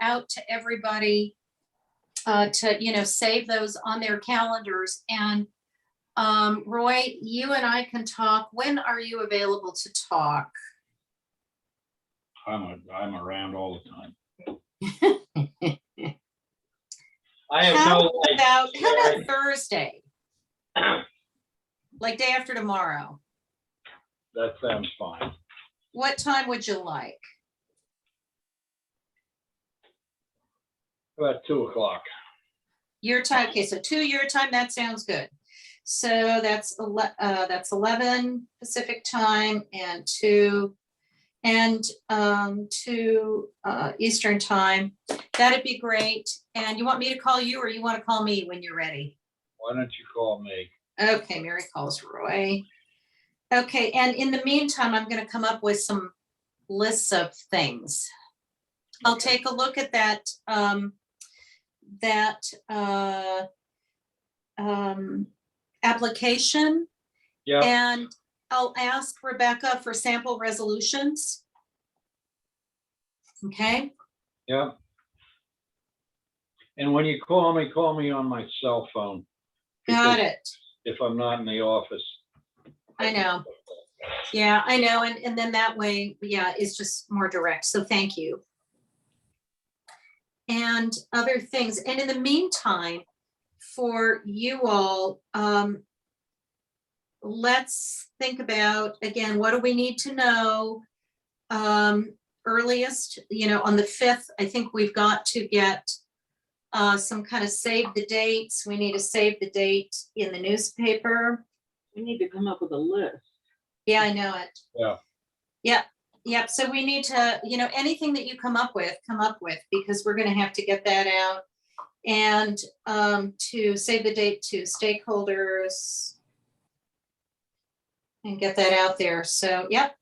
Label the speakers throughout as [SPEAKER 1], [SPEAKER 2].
[SPEAKER 1] to everybody uh, to, you know, save those on their calendars. And um, Roy, you and I can talk. When are you available to talk?
[SPEAKER 2] I'm, a- I'm around all the time.
[SPEAKER 3] I have
[SPEAKER 1] How
[SPEAKER 3] no life.
[SPEAKER 1] about, how
[SPEAKER 3] Sherry.
[SPEAKER 1] about Thursday? Like day after tomorrow?
[SPEAKER 2] That sounds fine.
[SPEAKER 1] What time would you like?
[SPEAKER 2] About two o'clock.
[SPEAKER 1] Your time, okay, so two your time, that sounds good. So that's, ele- uh, that's eleven Pacific time and two, and, um, two, uh, Eastern time. That'd be great. And you want me to call you or you want to call me when you're ready?
[SPEAKER 2] Why don't you call me?
[SPEAKER 1] Okay, Mary calls Roy. Okay, and in the meantime, I'm gonna come up with some lists of things. I'll
[SPEAKER 2] Okay.
[SPEAKER 1] take a look at that, um, that, uh, um, application
[SPEAKER 2] Yeah,
[SPEAKER 1] and I'll ask Rebecca for sample resolutions. Okay,
[SPEAKER 2] yeah. And when you call me, call me on my cell phone.
[SPEAKER 1] got
[SPEAKER 2] because
[SPEAKER 1] it.
[SPEAKER 2] If I'm not in the office.
[SPEAKER 1] I know. Yeah, I know. And, and then that way, yeah, it's just more direct. So thank you. And other things. And in the meantime, for you all, um, let's think about, again, what do we need to know? Um, earliest, you know, on the fifth, I think we've got to get uh, some kind of save the dates. We need to save the date in the newspaper.
[SPEAKER 4] We need to come up with a list.
[SPEAKER 1] Yeah, I know it.
[SPEAKER 2] Yeah.
[SPEAKER 1] Yep, yep. So we need to, you know, anything that you come up with, come up with, because we're gonna have to get that out. And um, to save the date to stakeholders. And get that out there. So, yep.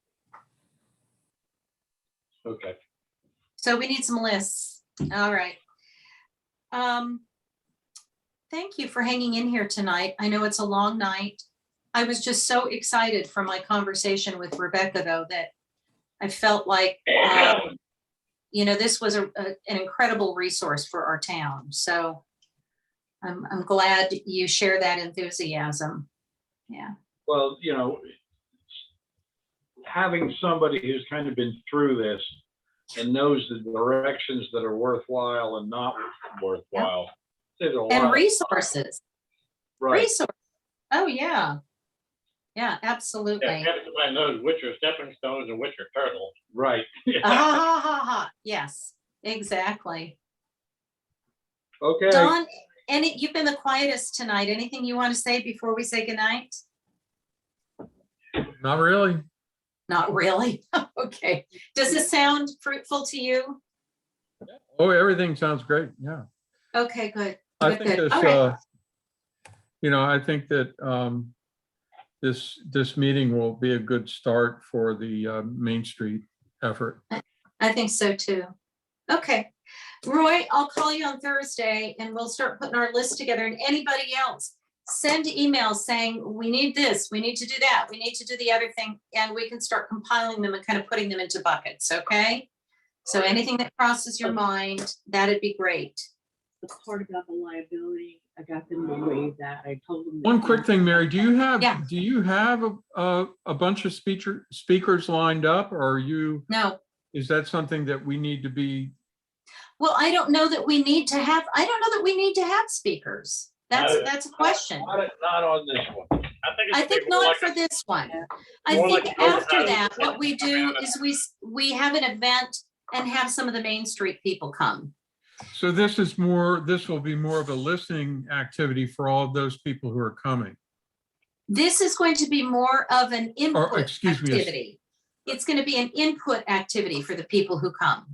[SPEAKER 2] Okay,
[SPEAKER 1] So we need some lists. All right. Um, thank you for hanging in here tonight. I know it's a long night. I was just so excited from my conversation with Rebecca, though, that I felt like, um, you know, this was a, a- an incredible resource for our town. So I'm, I'm glad you share that enthusiasm. Yeah,
[SPEAKER 2] well, you know, having somebody who's kind of been through this and knows the directions that are worthwhile and not worthwhile. There's a
[SPEAKER 1] and
[SPEAKER 2] lot,
[SPEAKER 1] resources,
[SPEAKER 2] right,
[SPEAKER 1] resource. Oh, yeah. Yeah, absolutely.
[SPEAKER 3] Everybody knows which are stepping stones and which are turtles.
[SPEAKER 2] right.
[SPEAKER 1] Ah, ha, ha, ha. Yes, exactly.
[SPEAKER 2] Okay.
[SPEAKER 1] Don, any, you've been the quietest tonight. Anything you want to say before we say goodnight?
[SPEAKER 5] Not really.
[SPEAKER 1] Not really. Okay. Does this sound fruitful to you?
[SPEAKER 5] Oh, everything sounds great. Yeah.
[SPEAKER 1] Okay, good.
[SPEAKER 5] I
[SPEAKER 1] Good,
[SPEAKER 5] think
[SPEAKER 1] good.
[SPEAKER 5] this,
[SPEAKER 1] All right.
[SPEAKER 5] uh, you know, I think that, um, this, this meeting will be a good start for the, uh, Main Street effort.
[SPEAKER 1] I think so too. Okay. Roy, I'll call you on Thursday and we'll start putting our list together and anybody else. Send emails saying, we need this, we need to do that, we need to do the other thing, and we can start compiling them and kind of putting them into buckets, okay? So anything that crosses your mind, that'd be great.
[SPEAKER 4] The part about the liability, I got them to waive that. I told them. that-
[SPEAKER 5] One quick thing, Mary, do you
[SPEAKER 1] Yeah.
[SPEAKER 5] have, do you have a, a, a bunch of speaker, speakers lined up? Or are you,
[SPEAKER 1] No,
[SPEAKER 5] is that something that we need to be?
[SPEAKER 1] well, I don't know that we need to have, I don't know that we need to have speakers. That's,
[SPEAKER 2] No.
[SPEAKER 1] that's a question.
[SPEAKER 2] Not, not on this one.
[SPEAKER 1] I think not for this one.
[SPEAKER 4] Yeah.
[SPEAKER 1] I
[SPEAKER 3] More
[SPEAKER 1] think
[SPEAKER 3] like an
[SPEAKER 1] after
[SPEAKER 3] overnight
[SPEAKER 1] that, what
[SPEAKER 3] event.
[SPEAKER 1] we do is we, s- we have an event and have some of the Main Street people come.
[SPEAKER 5] So this is more, this will be more of a listening activity for all of those people who are coming.
[SPEAKER 1] This is going to be more of an input
[SPEAKER 5] excuse me, yes.
[SPEAKER 1] activity. It's going to be an input activity for the people who come.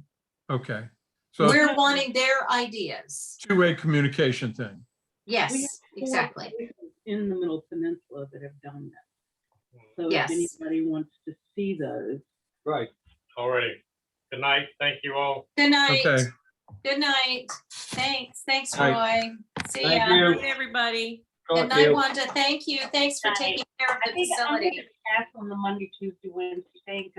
[SPEAKER 5] Okay. So
[SPEAKER 1] We're wanting their ideas.
[SPEAKER 5] two-way communication thing.
[SPEAKER 1] Yes, exactly.
[SPEAKER 4] In the Middle Peninsula that have done that. So if
[SPEAKER 1] Yes.
[SPEAKER 4] anybody wants to see those,
[SPEAKER 2] Right.
[SPEAKER 3] Already. Good night. Thank you all.
[SPEAKER 1] Good night.
[SPEAKER 5] Okay.
[SPEAKER 1] Good night. Thanks. Thanks,
[SPEAKER 5] All
[SPEAKER 1] Roy. See
[SPEAKER 2] Thank
[SPEAKER 1] ya.
[SPEAKER 2] you.
[SPEAKER 6] Thank you, everybody.
[SPEAKER 1] Good
[SPEAKER 2] Talk to
[SPEAKER 1] night,
[SPEAKER 2] you.
[SPEAKER 1] Wanda. Thank you. Thanks for
[SPEAKER 4] Night.
[SPEAKER 1] taking care of
[SPEAKER 4] I
[SPEAKER 1] the
[SPEAKER 4] think I'm gonna
[SPEAKER 1] facility.
[SPEAKER 4] pass on the Monday, Tuesday, Wednesday thing, 'cause